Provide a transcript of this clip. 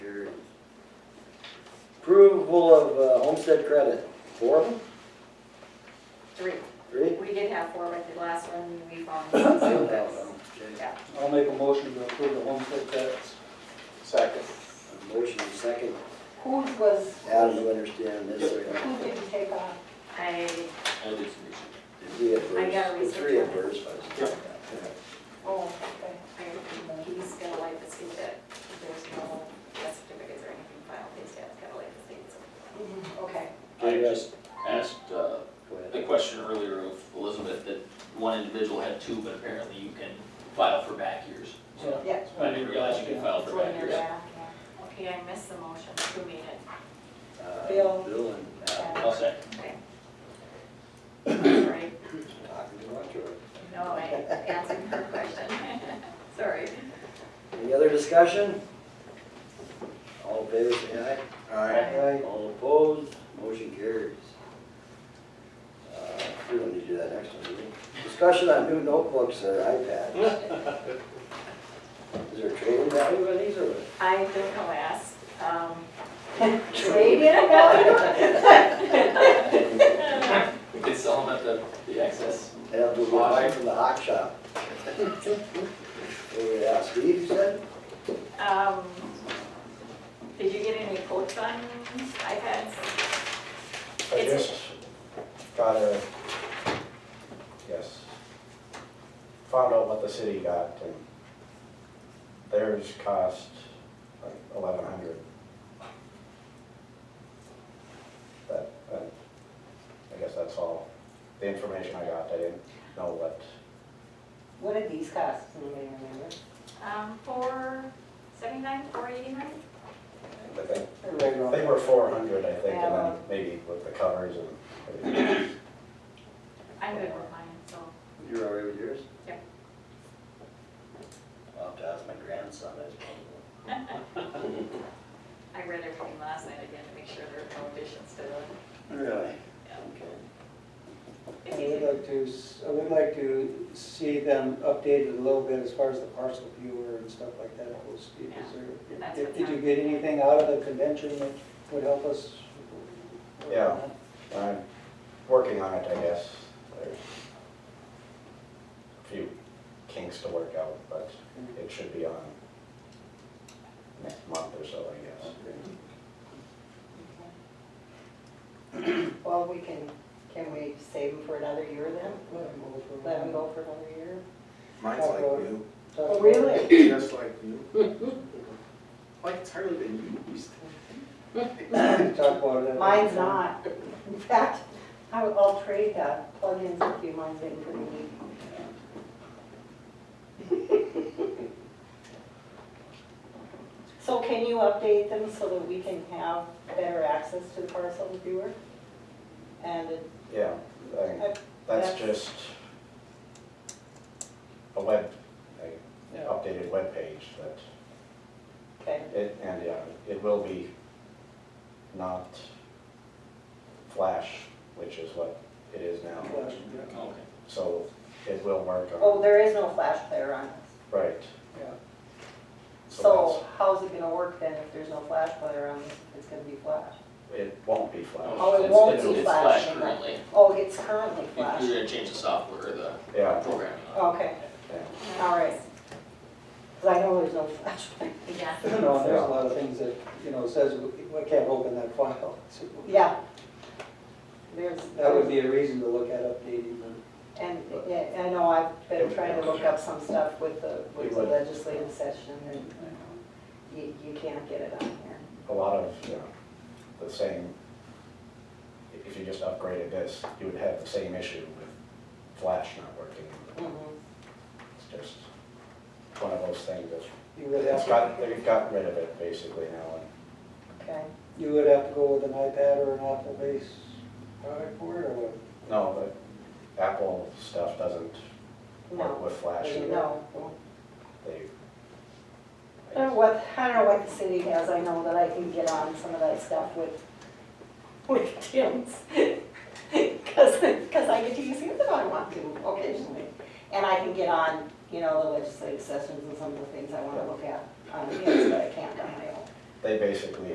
Approval of uh, homestead credit, four of them, Three. three? We did have four, but the last one we found. Two so of them, that's- okay. Yeah. I'll make a motion to approve the homestead credits. Second. Motion and second, Whose was, Adam, you understand this, or who not? did you take off? I, I did some research. Did we have I got a first? The research Three on at it. first, I was Oh, okay. I, he's gonna like to see that there's no death certificates or anything filed, he's gotta like to see it's. Mhm, Okay. I just asked uh, Go the ahead. question earlier of Elizabeth, that one individual had two, but apparently you can file for back years. So Yeah. I didn't realize you could file for Going back there, years. yeah, yeah. Okay, I missed the motion, who made it? Uh, Bill. Bill and Adam, I'll second. Sorry, talking to much, or- no, I answered her question. Sorry. Any other discussion? All in favor, say aye. Aye. All opposed, motion carries. Uh, We don't need to do that next one, do we? Discussion on new notebooks or iPads. Is there a trading value on these or? what? I don't know, ask, um, Trade in value? We could sell them at the, the excess. Yeah, we bought mine from the hawk shop. What we asked Steve, you said? um, did you get any quotes on iPads? I It's- just got a, yes, found out what the city got, and theirs cost like eleven hundred. But, uh, I guess that's all, the information I got, I didn't know what, What did these cost, anybody remember? Um, four seventy-nine, four eighty-nine? I think, Everybody wrong. they were four hundred, I think, and then maybe with the covers and everything. I'm good with mine, so, You're all right with yours? Yep. I'll have to ask my grandson, I suppose. I read everything last night again to make sure there are no additions to the. Really? Yeah. Okay. I would like to, s- I would like to see them updated a little bit as far as the parcel viewer and stuff like that goes. Steve. Is there- Yeah, that's did- what's Did you on. get anything out of the convention that would help us? Yeah. I'm working on it, I guess. There's a few kinks to work out, but it should be on next month or so, I guess. Well, we can, can we save them for another year then? Let them go for a Let them while. go for another year? Mine's like new, Talk Oh, about- really? just like new. Like it's hardly been used. Talk about it. Mine's not. In fact, I- I'll trade uh, plug-ins with you, mine's been pretty neat. So can you update them so that we can have better access to the parcel viewer? And it- Yeah, I think that's just a web, a Yeah. updated web page that, okay, it, and yeah, it will be not flash, which is what it is now. Flash, yeah. Okay. So it will work on. oh, there is no flash player on this. Right. Yeah. So how's it gonna work then if there's no flash player on this, if it's gonna be flash? that's- It won't be flash. Oh, it It's- won't it's- be It's flash. flash currently. Oh, it's currently You- You're flash, gonna change the software or the Yeah, programming on it. okay, yeah. all right. Because I know there's no flash player. Yeah. You know, there's a lot of things that, you know, says we we can't open that file. So Yeah. There's, That would be a reason to look at updating the, and, yeah, I know I've been trying to look up some stuff with the, with the legislative session and you, you can't get it on here. A lot of, you know, the same, i- if you just upgraded this, you would have the same issue with flash not working. Mm-hmm. It's just one of those things that's, you would have it's to, got, they've gotten rid of it basically now. and Okay, you would have to go with an iPad or an Apple-based product for it, or what? No, the Apple stuff doesn't work no, with flash either. no. They, I don't know what, I don't know what the city has, I know that I can get on some of that stuff with, with Tim's. Cause, cause I get to use it if I want to occasionally. And I can get on, you know, the legislative sessions and some of the things I wanna look at on Tim's, but I can't on my own. they basically